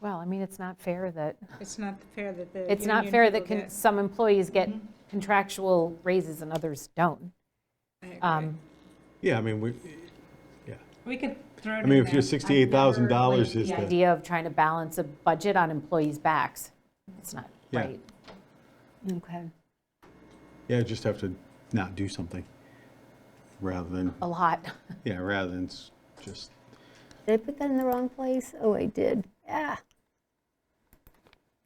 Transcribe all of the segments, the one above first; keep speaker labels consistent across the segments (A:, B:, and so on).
A: Well, I mean, it's not fair that,
B: It's not fair that the.
A: it's not
B: union
A: fair
B: people
A: that con-
B: get- Mm-hmm.
A: some employees get contractual raises and others don't.
B: I agree.
A: Um,
C: Yeah, I mean, we,
B: We could throw it
C: I
B: in
C: mean,
B: there.
C: if your
B: I've
C: sixty-eight thousand dollars
B: never,
C: is
A: The
C: the.
A: idea of trying to balance a budget on employees' backs, it's not
C: Yeah.
A: right. Okay.
C: Yeah, just have to not do something rather than,
A: A lot.
C: yeah, rather than s- just,
D: Did I put that in the wrong place? Oh, I did. Ah.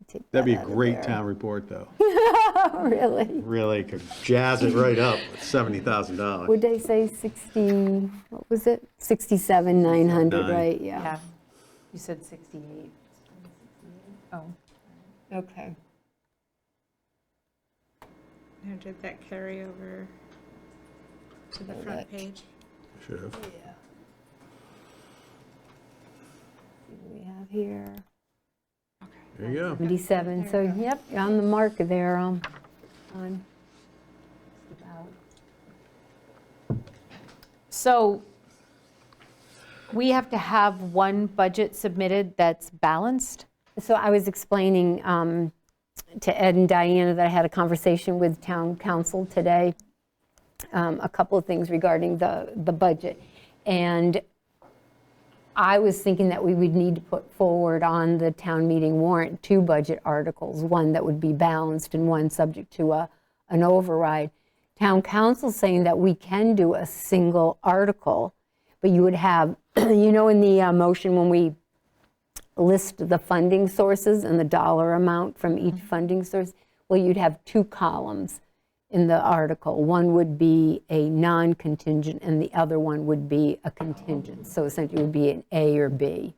D: Take
C: that'd be a
D: that out of
C: great
D: there.
C: town report, though.
D: Oh, really?
C: Really could jazz it right up with seventy thousand dollars.
D: Would I say 60, what was it? 67, 900,
C: Nine.
D: right? Yeah.
A: Yeah. You said 68. Oh,
D: Okay.
B: Now, did that carry over to the front page?
C: Should have.
D: What do we have here?
C: There you go.
D: 77, so yep, you're on the mark there, um, on,
A: about. So we have to have one budget submitted that's balanced?
D: so I was explaining um, to Ed and Diana that I had a conversation with town council today, um, a couple of things regarding the, the budget. And I was thinking that we would need to put forward on the town meeting warrant two budget articles, one that would be balanced and one subject to a, an override. Town council saying that we can do a single article, but you would have, you know, in the uh, motion when we list the funding sources and the dollar amount from each funding source, well, you'd have two columns in the article. One would be a non-contingent, and the other one would be a contingent. So essentially, it would be an A or B.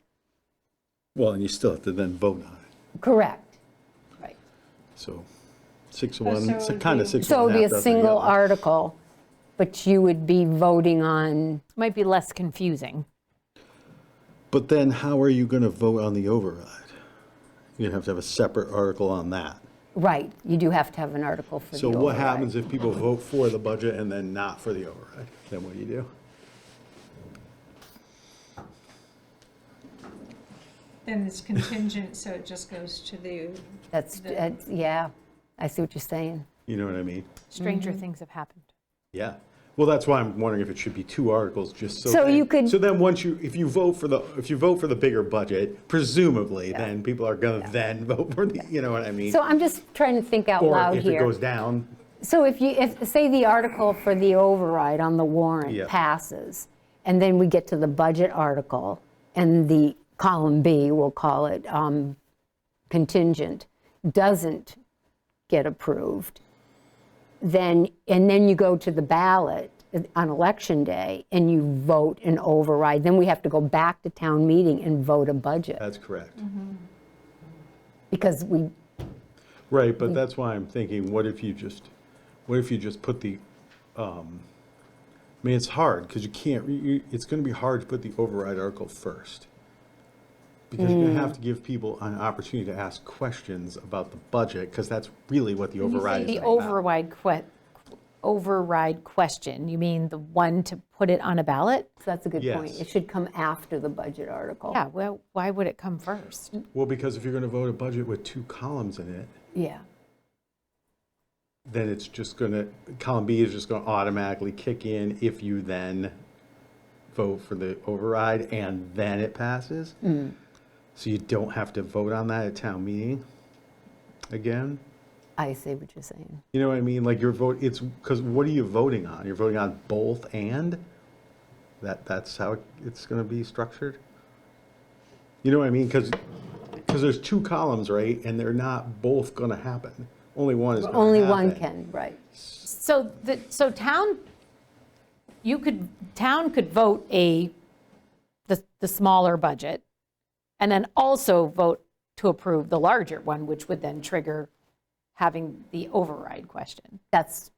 C: Well, and you still have to then vote on it,
D: Correct. Right.
C: so six of one,
B: so
C: it's
B: it would
C: kind of
B: be-
C: six of
D: Oh, So it
C: one,
D: would be
C: half
D: a
C: dozen of the
D: single
C: other.
D: article, but you would be voting on,
A: Might be less confusing.
C: But then how are you going to vote on the override? You're going to have to have a separate article on that.
D: right, you do have to have an article for the
C: So what
D: override.
C: happens if people vote for the budget and then not for the override? Then what do you do?
B: Then it's contingent, so it just goes to the,
D: That's, that's- yeah, I see what you're saying.
C: You know what I mean?
A: Stranger things have happened.
C: Yeah. Well, that's why I'm wondering if it should be two articles, just so.
D: So
C: then-
D: you could-
C: So then, once you, if you vote for the, if you vote for the bigger budget, presumably, then people are going to then vote for the, you know what I mean?
D: So I'm just trying to think out loud
C: Or if it
D: here.
C: goes down,
D: So if you, if, say the article for the override on the
C: Yeah.
D: warrant passes, and then we get to the budget article, and the column B, we'll call it um, contingent, doesn't get approved, then, and then you go to the ballot on election day, and you vote an override, then we have to go back to town meeting and vote a budget,
C: that's correct.
D: because we,
C: Right, but that's why I'm thinking, what if you just, what if you just put the, um, I mean, it's hard, because you can't, you- you, it's gonna be hard to put the override article first. Because you're gonna have to give people an opportunity to ask questions about the budget, because that's really what the override is
A: The
C: all about.
A: override que, override question, you mean the one to put it on a ballot?
D: so that's a good point.
C: Yes.
D: It should come after the budget article.
A: Yeah, well, why would it come first?
C: Well, because if you're gonna vote a budget with two columns in it,
D: Yeah.
C: then it's just gonna, column B is just gonna automatically kick in if you then vote for the override and then it passes.
D: Mm.
C: So you don't have to vote on that at town meeting again.
D: I see what you're saying.
C: You know what I mean? Like your vote, it's, because what are you voting on? You're voting on both and? That, that's how it's gonna be structured? You know what I mean? Because, there's two columns, right? And they're not both gonna happen. Only one is gonna
D: Only one
C: happen.
D: can, right.
A: So, the, so town, you could, town could vote a, the, the smaller budget, and then also vote to approve the larger one, which would then trigger having the override question,
D: That's,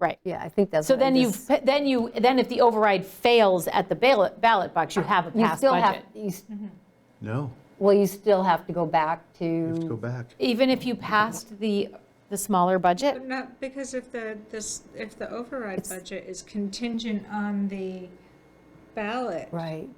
A: right?
D: yeah, I think that's.
A: So
D: what I
A: then you,
D: just-
A: then you, then if the override fails at the ballot, ballot box, you have a
D: You
A: passed
D: still have,
A: budget.
D: you s-
C: No,
D: well, you still have to go back
C: you have to go
D: to,
C: back.
A: Even if you passed the, the smaller budget?
B: but not, because if the, this, if the override budget is contingent on the ballot,
D: right,